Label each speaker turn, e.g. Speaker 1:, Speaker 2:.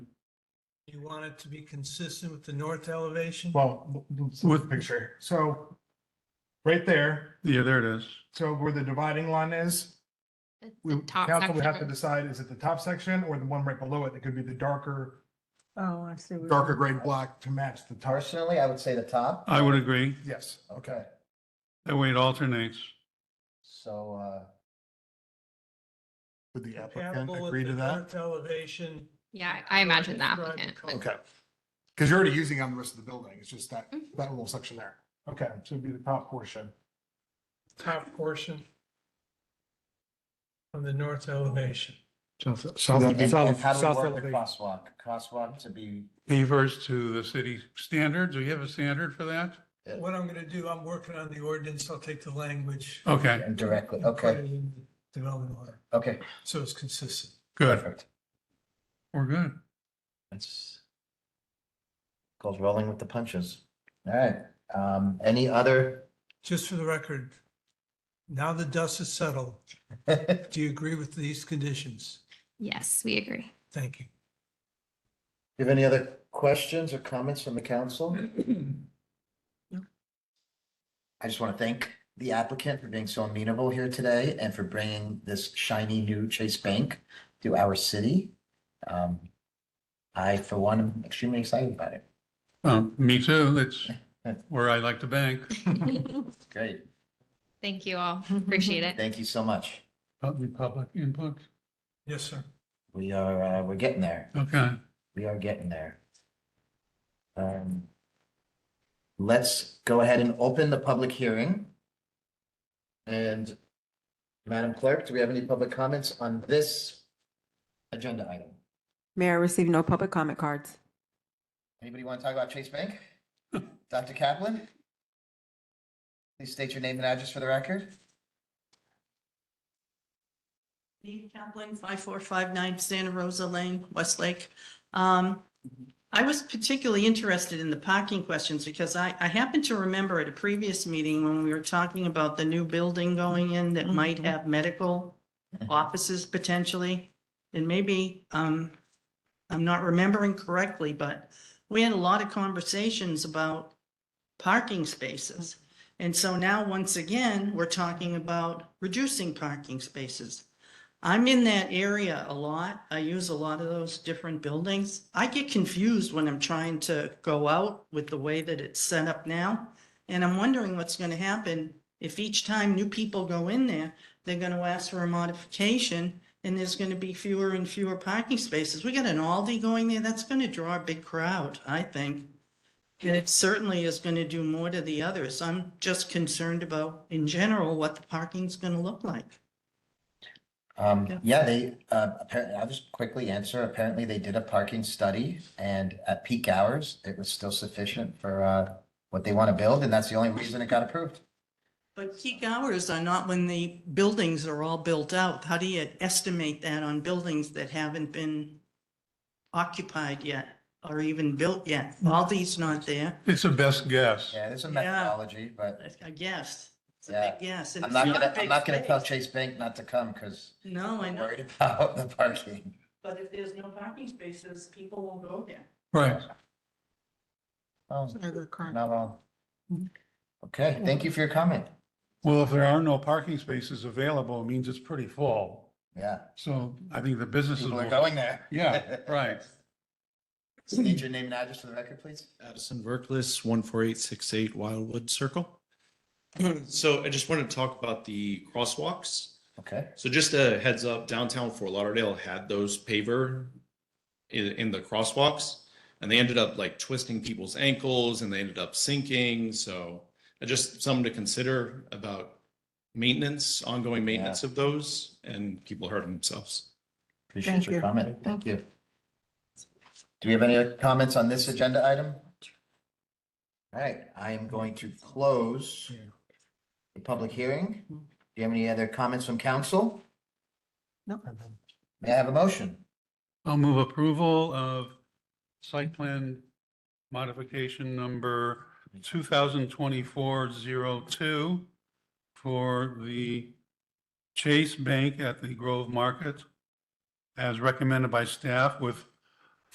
Speaker 1: you want it to be consistent with the north elevation?
Speaker 2: Well, let's look at the picture, so right there,
Speaker 3: Yeah, there it is.
Speaker 2: so where the dividing line is,
Speaker 4: It's
Speaker 2: we,
Speaker 4: top
Speaker 2: council would have to
Speaker 4: section.
Speaker 2: decide, is it the top section or the one right below it? That could be the darker,
Speaker 5: Oh, I see. what you're-
Speaker 2: darker gray block to match the top.
Speaker 6: Personally, I would say the top.
Speaker 3: I would agree.
Speaker 2: Yes,
Speaker 6: Okay,
Speaker 3: That way it alternates.
Speaker 6: so, uh,
Speaker 2: would the applicant
Speaker 1: Compatible with
Speaker 2: agree
Speaker 1: the
Speaker 2: to that?
Speaker 1: north Elevation.
Speaker 4: Yeah, I I imagine the
Speaker 1: Describe the
Speaker 4: applicant.
Speaker 1: color.
Speaker 4: would-
Speaker 2: Okay, because you're already using on the rest of the building, it's just that,
Speaker 4: Mm-hmm.
Speaker 2: that little section there. Okay, so it'd be the top portion.
Speaker 1: top portion on the north elevation.
Speaker 3: South,
Speaker 6: and and how do we work the crosswalk? Crosswalk to be,
Speaker 3: Pavers to the city standards. Do you have a standard for that?
Speaker 1: What I'm gonna do, I'm working on the ordinance, I'll take the language.
Speaker 3: Okay,
Speaker 6: and directly,
Speaker 1: and put
Speaker 6: okay,
Speaker 1: it in the Development order,
Speaker 6: okay,
Speaker 1: so it's consistent.
Speaker 3: good.
Speaker 6: perfect.
Speaker 3: We're good.
Speaker 6: That's goes rolling with the punches. All right, um, any other?
Speaker 1: Just for the record, now the dust has settled,
Speaker 6: All
Speaker 1: do you agree with these conditions?
Speaker 4: Yes, we agree.
Speaker 1: Thank you.
Speaker 6: You have any other questions or comments from the council? I just want to thank the applicant for being so amenable here today and for bringing this shiny new Chase Bank to our city. Um, I, for one, am extremely excited about it.
Speaker 3: Um, me too. That's where I like to bank.
Speaker 6: Great.
Speaker 4: Thank you all. Appreciate it.
Speaker 6: Thank you so much.
Speaker 3: Public, public input.
Speaker 1: Yes, sir.
Speaker 6: We are, uh, we're getting there.
Speaker 3: Okay.
Speaker 6: We are getting there. Um, Let's go ahead and open the public hearing. And Madam Clerk, do we have any public comments on this agenda item?
Speaker 5: Mayor received no public comment cards.
Speaker 6: Anybody want to talk about Chase Bank? Dr. Kaplan? Please state your name and address for the record.
Speaker 7: Lee Kaplan, 5459 Santa Rosa Lane, Westlake. Um, I was particularly interested in the parking questions because I, I happen to remember at a previous meeting when we were talking about the new building going in that might
Speaker 5: Mhm.
Speaker 7: have medical offices potentially. And maybe, um, I'm not remembering correctly, but we had a lot of conversations about parking spaces. And so now, once again, we're talking about reducing parking spaces. I'm in that area a lot. I use a lot of those different buildings. I get confused when I'm trying to go out with the way that it's set up now. And I'm wondering what's going to happen if each time new people go in there, they're going to ask for a modification and there's going to be fewer and fewer parking spaces. We got an Aldi going there. That's going to draw a big crowd, I think. And it certainly is going to do more to the others. I'm just concerned about, in general, what the parking's going to look like.
Speaker 6: Um,
Speaker 7: Yeah.
Speaker 6: yeah, they, uh, apparently, I'll just quickly answer. Apparently, they did a parking study and at peak hours, it was still sufficient for, uh, what they want to build, and that's the only reason it got approved.
Speaker 7: But peak hours are not when the buildings are all built out. How do you estimate that on buildings that haven't been occupied yet or even built yet? All these not there,
Speaker 3: It's a best guess.
Speaker 6: Yeah, there's a
Speaker 7: Yeah.
Speaker 6: methodology, but
Speaker 7: I guess. It's a
Speaker 6: Yeah.
Speaker 7: big guess. and
Speaker 6: I'm
Speaker 7: it's
Speaker 6: not
Speaker 7: a
Speaker 6: gonna, I'm
Speaker 7: big
Speaker 6: not gonna tell
Speaker 7: space.
Speaker 6: Chase Bank not to come because
Speaker 7: No, I
Speaker 6: I'm
Speaker 7: know,
Speaker 6: worried about the parking.
Speaker 7: but if there's no parking spaces, people won't go there.
Speaker 3: Right.
Speaker 6: Oh,
Speaker 5: Not a good card.
Speaker 6: not wrong.
Speaker 7: Mm-hmm.
Speaker 6: Okay, thank you for your comment.
Speaker 3: Well, if there are no parking spaces available, it means it's pretty full.
Speaker 6: Yeah,
Speaker 3: So I think the businesses
Speaker 6: people
Speaker 3: will.
Speaker 6: are going there.
Speaker 3: Yeah, right.
Speaker 6: State your name and address for the record, please.
Speaker 8: Addison Verklis, one four eight six eight Wildwood Circle. So I just wanted to talk about the crosswalks.
Speaker 6: Okay,
Speaker 8: So just a heads up, downtown Fort Lauderdale had those paver in, in the crosswalks. And they ended up like twisting people's ankles and they ended up sinking. So uh, just something to consider about maintenance, ongoing maintenance of those and people hurting themselves.
Speaker 6: appreciate
Speaker 5: Thank
Speaker 6: your
Speaker 5: you.
Speaker 6: comment. Thank you. Do we have any other comments on this agenda item? All right, I am going to close the public hearing. Do you have any other comments from council?
Speaker 5: No.
Speaker 6: May I have a motion?
Speaker 3: I'll move approval of site plan modification number 2024-02 for the Chase Bank at the Grove Market as recommended by staff with